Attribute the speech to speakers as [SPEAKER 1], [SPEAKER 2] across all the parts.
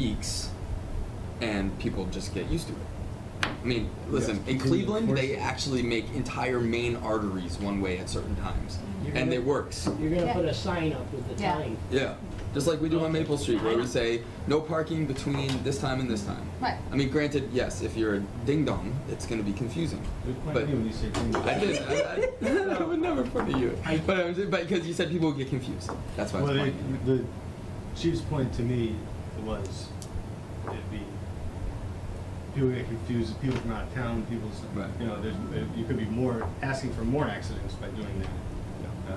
[SPEAKER 1] weeks, and people just get used to it. I mean, listen,
[SPEAKER 2] Yeah.
[SPEAKER 1] in Cleveland, they
[SPEAKER 2] Force it.
[SPEAKER 1] actually make entire main arteries one way at certain times,
[SPEAKER 2] You're
[SPEAKER 1] and
[SPEAKER 2] gonna-
[SPEAKER 1] it works.
[SPEAKER 2] You're gonna
[SPEAKER 3] Yeah.
[SPEAKER 2] put a sign up with the
[SPEAKER 3] Yeah.
[SPEAKER 2] time.
[SPEAKER 1] Yeah, just like we do on Maple Street, where we say no parking between this time and this time.
[SPEAKER 3] Right.
[SPEAKER 1] I mean, granted, yes, if you're a ding dong, it's going to be confusing.
[SPEAKER 4] Good point
[SPEAKER 1] But
[SPEAKER 4] of view when you say things.
[SPEAKER 1] I just, I, I, I would never put it you.
[SPEAKER 2] I-
[SPEAKER 1] But I was, but because you said people get confused, that's why. I was
[SPEAKER 4] Well, the,
[SPEAKER 1] pointing.
[SPEAKER 4] the chief's point to me was, it'd be, people get confused, people from out of town, people's,
[SPEAKER 1] Right.
[SPEAKER 4] you know, there's, you could be more, asking for more accidents by doing that. Uh,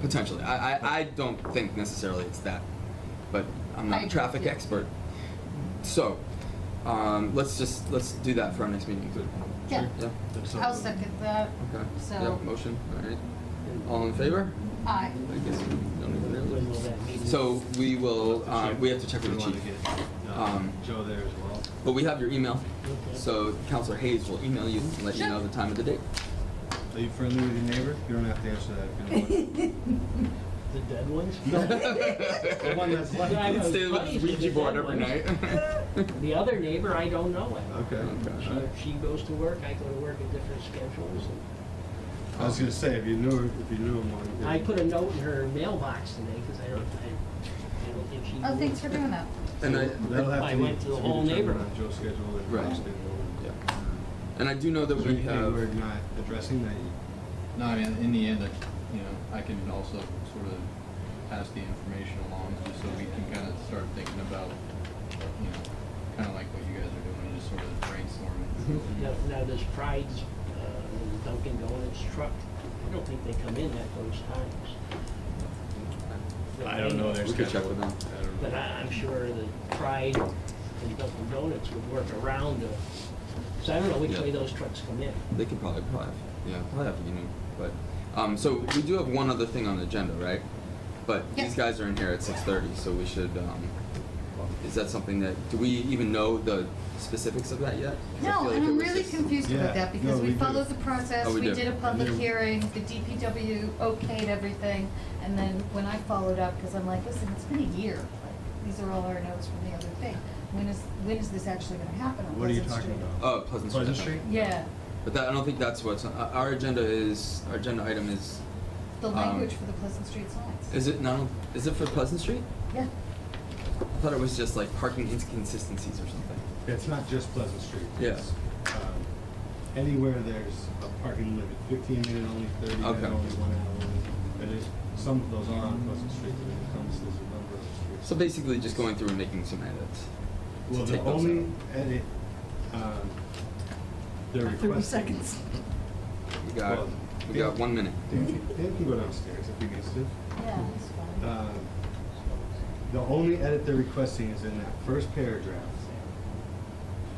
[SPEAKER 1] Potentially. I, I, I don't think necessarily it's that, but I'm not
[SPEAKER 3] I
[SPEAKER 1] a
[SPEAKER 3] agree,
[SPEAKER 1] traffic
[SPEAKER 3] yeah.
[SPEAKER 1] expert. So, um, let's just, let's do that for our next meeting.
[SPEAKER 3] Yeah.
[SPEAKER 4] Sure.
[SPEAKER 1] Yeah,
[SPEAKER 4] that's
[SPEAKER 3] I'll
[SPEAKER 4] something.
[SPEAKER 3] second that.
[SPEAKER 1] okay.
[SPEAKER 3] So-
[SPEAKER 1] Yeah, motion, alright. All in favor?
[SPEAKER 3] Aye.
[SPEAKER 1] I guess we don't even
[SPEAKER 2] When will
[SPEAKER 1] Oh, really.
[SPEAKER 2] that meeting?
[SPEAKER 1] So we will,
[SPEAKER 4] We'll
[SPEAKER 1] uh,
[SPEAKER 4] check.
[SPEAKER 1] we have to check with
[SPEAKER 4] We
[SPEAKER 1] the
[SPEAKER 4] wanna
[SPEAKER 1] chief.
[SPEAKER 4] get, uh,
[SPEAKER 1] Um,
[SPEAKER 4] Joe there as well.
[SPEAKER 1] But we have your email,
[SPEAKER 2] Okay.
[SPEAKER 1] so Counselor Hayes will email you and let you
[SPEAKER 3] Sure.
[SPEAKER 1] know the time of the date.
[SPEAKER 4] Are you friendly with your neighbor? You don't have to answer that if you don't
[SPEAKER 2] The dead ones?
[SPEAKER 4] want. The one that's left.
[SPEAKER 2] Yeah, I know.
[SPEAKER 1] Stay with
[SPEAKER 2] funny
[SPEAKER 1] his
[SPEAKER 2] is the
[SPEAKER 1] Ouija board
[SPEAKER 2] dead
[SPEAKER 1] every night.
[SPEAKER 2] ones- The other neighbor, I don't know it.
[SPEAKER 4] Okay.
[SPEAKER 1] Okay.
[SPEAKER 2] She- She goes to work, I go to work at different schedules. and-
[SPEAKER 4] I was gonna say, if you knew, her- if you knew him one.
[SPEAKER 2] I put a note in her mailbox today, because I don't, I, I don't think she.
[SPEAKER 3] Oh,
[SPEAKER 2] knew.
[SPEAKER 3] thanks for doing that.
[SPEAKER 1] And I,
[SPEAKER 4] That'll have
[SPEAKER 2] I
[SPEAKER 4] to be.
[SPEAKER 2] went to the
[SPEAKER 4] be
[SPEAKER 2] whole
[SPEAKER 4] determined
[SPEAKER 2] neighborhood.
[SPEAKER 4] on Joe's schedule and
[SPEAKER 1] Right.
[SPEAKER 4] Joe's schedule.
[SPEAKER 1] Yeah. and I do know that
[SPEAKER 4] Is there
[SPEAKER 1] we
[SPEAKER 4] anything
[SPEAKER 1] have.
[SPEAKER 4] we're not addressing that you?
[SPEAKER 5] No, I mean, in the end, I, you know, I can also sort of pass the information along just so we can kind of start thinking about, you know, kind of like what you guys are doing, just sort of brainstorming.
[SPEAKER 4] Mm-hmm.
[SPEAKER 2] Now, now this Pride's, uh, Dunkin' Donuts truck, I don't think they come in at those times.
[SPEAKER 1] their We could check with them.
[SPEAKER 4] I don't
[SPEAKER 2] But I, I'm sure that Pride and Dunkin' Donuts would work around the, so I don't know which
[SPEAKER 1] Yeah.
[SPEAKER 2] way those trucks come in.
[SPEAKER 1] They could probably probably have, yeah, probably have you know, but um, so we do have one other thing on the agenda, right? But these
[SPEAKER 3] Yes.
[SPEAKER 1] guys are in here at six thirty, so we should. Um, is that something that do we even know the specifics of that yet? 'Cause I feel
[SPEAKER 3] No,
[SPEAKER 1] like
[SPEAKER 3] and
[SPEAKER 1] it
[SPEAKER 3] I'm
[SPEAKER 1] was
[SPEAKER 3] really
[SPEAKER 1] just-
[SPEAKER 3] confused
[SPEAKER 4] Yeah,
[SPEAKER 3] about that because
[SPEAKER 4] no,
[SPEAKER 3] we
[SPEAKER 4] we do.
[SPEAKER 3] followed the process,
[SPEAKER 1] Oh, we
[SPEAKER 3] we
[SPEAKER 1] do.
[SPEAKER 3] did a public
[SPEAKER 4] And then-
[SPEAKER 3] hearing, the DPW okayed everything, and then when I followed up, because I'm like, listen, it's been a year, like, these are all our notes from the other thing. When is, when is this actually gonna happen on
[SPEAKER 4] What are you
[SPEAKER 3] Oh, Pleasant
[SPEAKER 4] talking
[SPEAKER 3] Street?
[SPEAKER 4] about?
[SPEAKER 1] Oh, Pleasant Street. I
[SPEAKER 4] Pleasant
[SPEAKER 1] think.
[SPEAKER 4] Street?
[SPEAKER 3] Yeah,
[SPEAKER 1] But that, I don't think that's what's on, uh, our agenda is. Our agenda item is.
[SPEAKER 3] the
[SPEAKER 1] Um,
[SPEAKER 3] language for the Pleasant Street signs.
[SPEAKER 1] Is it no? Is it for Pleasant Street?
[SPEAKER 3] Yeah,
[SPEAKER 1] I thought it was just like parking inconsistencies or something.
[SPEAKER 4] It's not just Pleasant Street.
[SPEAKER 1] Yeah.
[SPEAKER 4] It's, um, Anywhere there's a parking limit, fifteen minute only, thirty minute
[SPEAKER 1] Okay.
[SPEAKER 4] only, one hour only. There is, some of those are on Pleasant Street, but it comes, there's a number of
[SPEAKER 1] So
[SPEAKER 4] streets.
[SPEAKER 1] basically, just going through and making some edits. to
[SPEAKER 4] Well, the
[SPEAKER 1] take those
[SPEAKER 4] only
[SPEAKER 1] out.
[SPEAKER 4] edit, um, they're requesting.
[SPEAKER 3] thirty seconds.
[SPEAKER 1] We got,
[SPEAKER 4] Well,
[SPEAKER 1] we got one minute.
[SPEAKER 4] Dan can- Dan can go downstairs if he needs to.
[SPEAKER 3] Yeah, that's fine.
[SPEAKER 4] Um, The only edit they're requesting is in that first paragraph.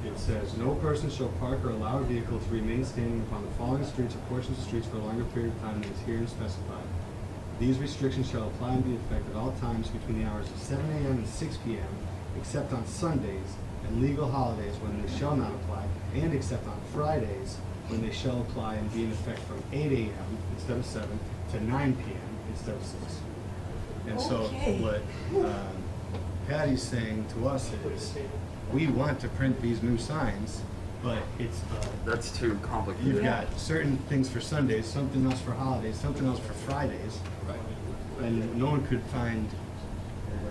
[SPEAKER 4] It says, "No person shall park or allow a vehicle to remain standing upon the following streets or portions of streets for a longer period of time than is herein specified. These restrictions shall apply and be effective at all times between the hours of seven AM and six PM, except on Sundays and legal holidays when they shall not apply, and except on Fridays when they shall apply and be in effect from eight AM instead of seven to nine PM instead of six. And so
[SPEAKER 6] Okay.
[SPEAKER 4] what um, Patty's saying to us is, we want to print these new signs, but it's, uh,
[SPEAKER 1] That's too complicated.
[SPEAKER 4] you've got certain things for Sundays, something else for holidays, something else for Fridays. And no one could find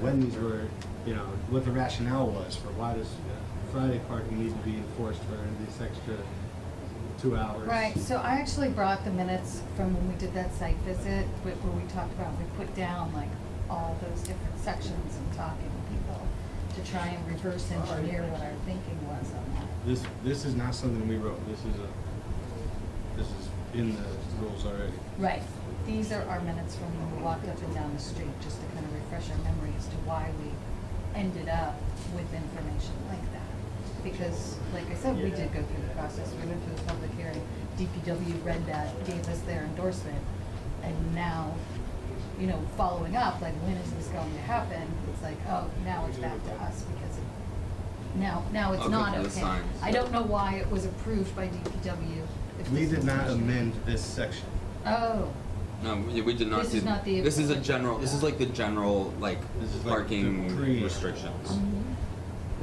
[SPEAKER 4] when these were, you know, what the rationale was for why does Friday parking need to be enforced for this extra two hours.
[SPEAKER 3] Right, so I actually brought the minutes from when we did that site visit, wh- where we talked about, we put down like all those different sections and talking to people to try and reverse engineer what our thinking was on that.
[SPEAKER 4] This, this is not something we wrote, this is a, this is in the rules already.
[SPEAKER 3] Right, these are our minutes from when we walked up and down the street, just to kind of refresh our memory as to why we ended up with information like that. Because, like I said, we did go through the process, we went through the public hearing, DPW read that, gave us their endorsement, and now, you know, following up, like, when is this going to happen? It's like, oh, now it's back to us, because it, now, now it's
[SPEAKER 1] Okay,
[SPEAKER 3] not
[SPEAKER 1] for the
[SPEAKER 3] okay.
[SPEAKER 1] signs.
[SPEAKER 3] I don't know why it was approved by DPW. if
[SPEAKER 4] We
[SPEAKER 3] this
[SPEAKER 4] did
[SPEAKER 3] is
[SPEAKER 4] not
[SPEAKER 3] an issue.
[SPEAKER 4] amend this section.
[SPEAKER 3] Oh,
[SPEAKER 1] No, we, we did not.
[SPEAKER 3] This
[SPEAKER 1] do-
[SPEAKER 3] is not the
[SPEAKER 1] This is a
[SPEAKER 3] equivalent.
[SPEAKER 1] general. This is like the general like
[SPEAKER 4] This is like the
[SPEAKER 1] parking
[SPEAKER 4] pre-
[SPEAKER 1] restrictions.